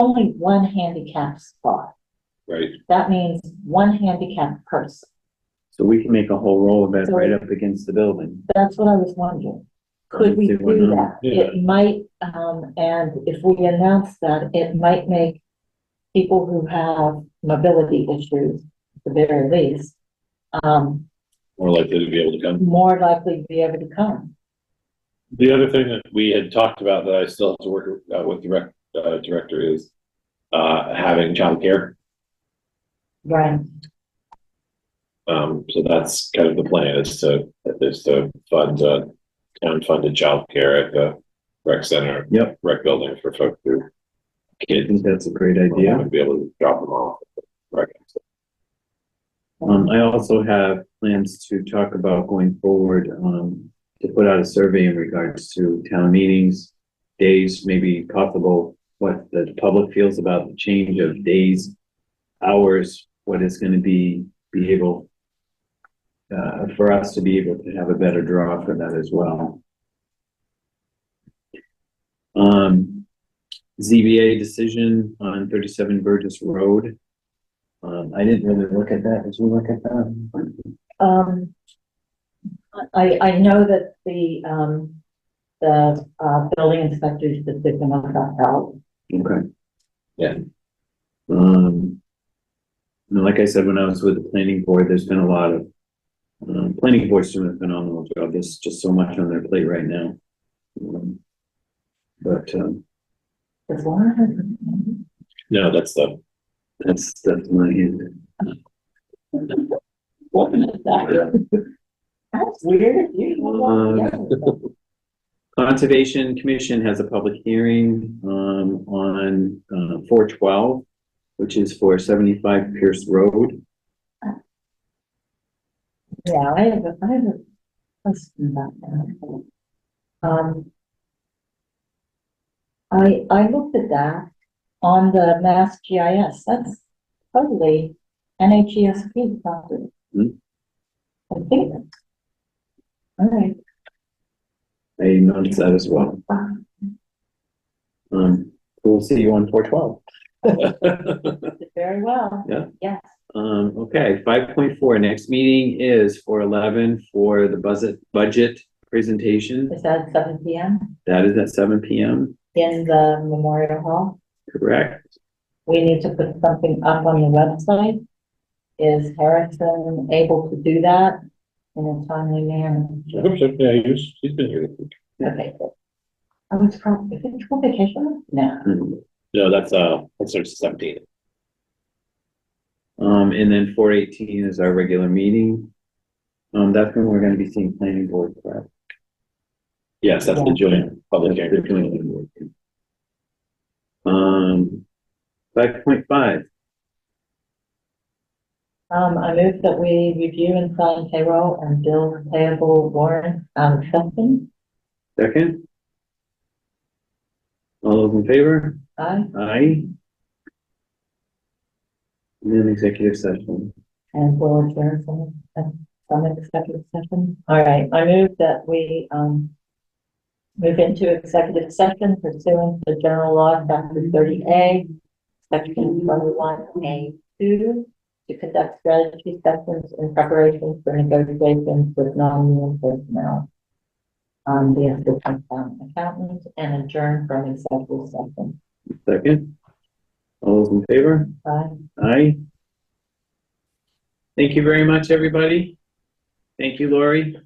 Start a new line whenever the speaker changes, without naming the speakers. only one handicap spot.
right?
That means one handicap person.
So we can make a whole row of it
So-
right up against the building.
That's what I was wondering. Could we do
Let's see what number-
that? It might, um, and if we announce that, it might make people who have mobility issues, at the very least, um,
More likely to be able to come.
more likely to be able to come.
The other thing that we had talked about that I still have to work uh, with direct, uh, director is, uh, having childcare.
Right.
Um, so that's kind of the plan is to, is to fund, uh, town funded childcare at the rec center.
Yep.
Rec building for folks who
I
kids
think that's a great idea.
would be able to drop them off. at the rec.
Um, I also have plans to talk about going forward, um, to put out a survey in regards to town meetings, days, maybe possible, what the public feels about the change of days, hours, what is gonna be, be able, uh, for us to be able to have a better draw for that as well. Um, ZBA decision on thirty-seven Burgess Road. Um, I didn't really look at that. Did you look at that?
Um, I, I know that the, um, the, uh, building inspector's decision on that out.
Okay.
Yeah.
Um, and like I said, when I was with the planning board, there's been a lot of, um, planning board's doing a phenomenal job. There's just so much on their plate right now. Um, But, um,
Is Laura here?
No, that's the,
that's, that's my hand.
What is that? That's weird. You don't
Um,
want to-
Conservation Commission has a public hearing, um, on, uh, four twelve, which is for seventy-five Pierce Road.
Yeah, I have, a I have a question about that. Um, I, I looked at that on the Mass GIS, that's totally NHESP property.
Hmm.
I think. All right,
I noticed that as well. Um, we'll see you on four twelve.
very well.
Yeah.
Yes,
Um, okay, five point four, next meeting is four eleven for the budget, budget presentation.
is that seven P M
That is at seven P M,
in the Memorial Hall?
correct?
we need to put something up on the website. Is Harrison able to do that in a timely manner?
I hope so, yeah, he's, he's been here.
Okay. good. I was from, is it school vacation? No.
Um,
No, that's, uh, that's sort of seventeen.
Um, and then four eighteen is our regular meeting. Um, that's when we're gonna be seeing planning board. correct?
Yes, that's the joint public
That's the
hearing.
planning board. Um, five point five,
Um, I move that we review and sign payroll and bill payable warrant, um, acceptance.
second. All those in favor?
Aye.
Aye. And then executive session.
And we'll adjourn from, uh, from executive session. All right, I move that we, um, move into executive session pursuant to general law, chapter thirty A, section twenty-one A two, to conduct strategy sessions in preparation for negotiations with non-union personnel. Um, the assistant town accountant and adjourn from executive session.
Second. All those in favor?
Bye.
Aye. Thank you very much, everybody. Thank you, Lori.